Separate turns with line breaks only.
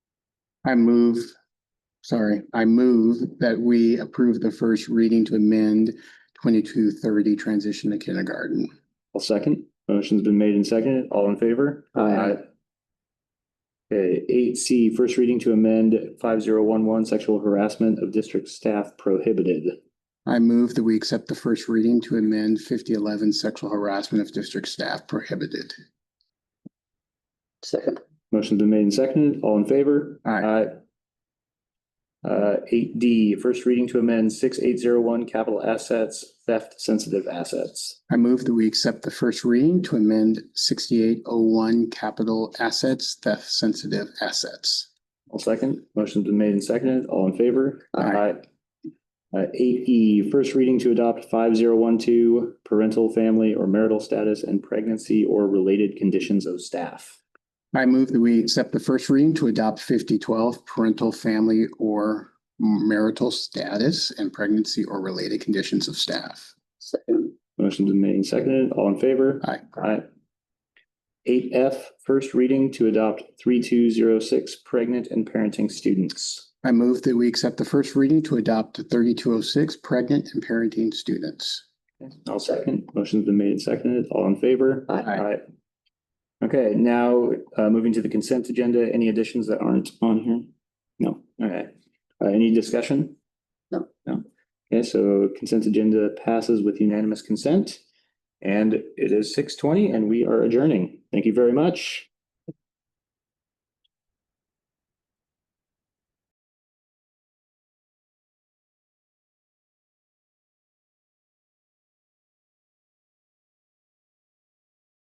I move, sorry, I move that we approve the first reading to amend twenty-two thirty transition to kindergarten.
I'll second. Motion's been made and seconded. All in favor?
Aye.
Okay, eight C, first reading to amend five zero one one, sexual harassment of district staff prohibited.
I move that we accept the first reading to amend fifty eleven sexual harassment of district staff prohibited.
Second,
Motion's been made and seconded. All in favor?
Aye.
Uh, eight D, first reading to amend six eight zero one, capital assets, theft sensitive assets.
I move that we accept the first reading to amend sixty-eight oh one capital assets, theft sensitive assets.
I'll second. Motion's been made and seconded. All in favor?
Aye.
Uh, eight E, first reading to adopt five zero one two, parental, family, or marital status and pregnancy or related conditions of staff.
I move that we accept the first reading to adopt fifty twelve parental, family, or marital status and pregnancy or related conditions of staff.
second,
Motion's been made and seconded. All in favor?
Aye.
Aye. Eight F, first reading to adopt three two zero six, pregnant and parenting students.
I move that we accept the first reading to adopt thirty-two oh six pregnant and parenting students.
I'll second. Motion's been made and seconded. All in favor?
Aye.
Aye.
Okay, now, uh, moving to the consent agenda, any additions that aren't on here? No, all right. Uh, any discussion?
No.
No. Okay, so consent agenda passes with unanimous consent. And it is six twenty and we are adjourning. Thank you very much.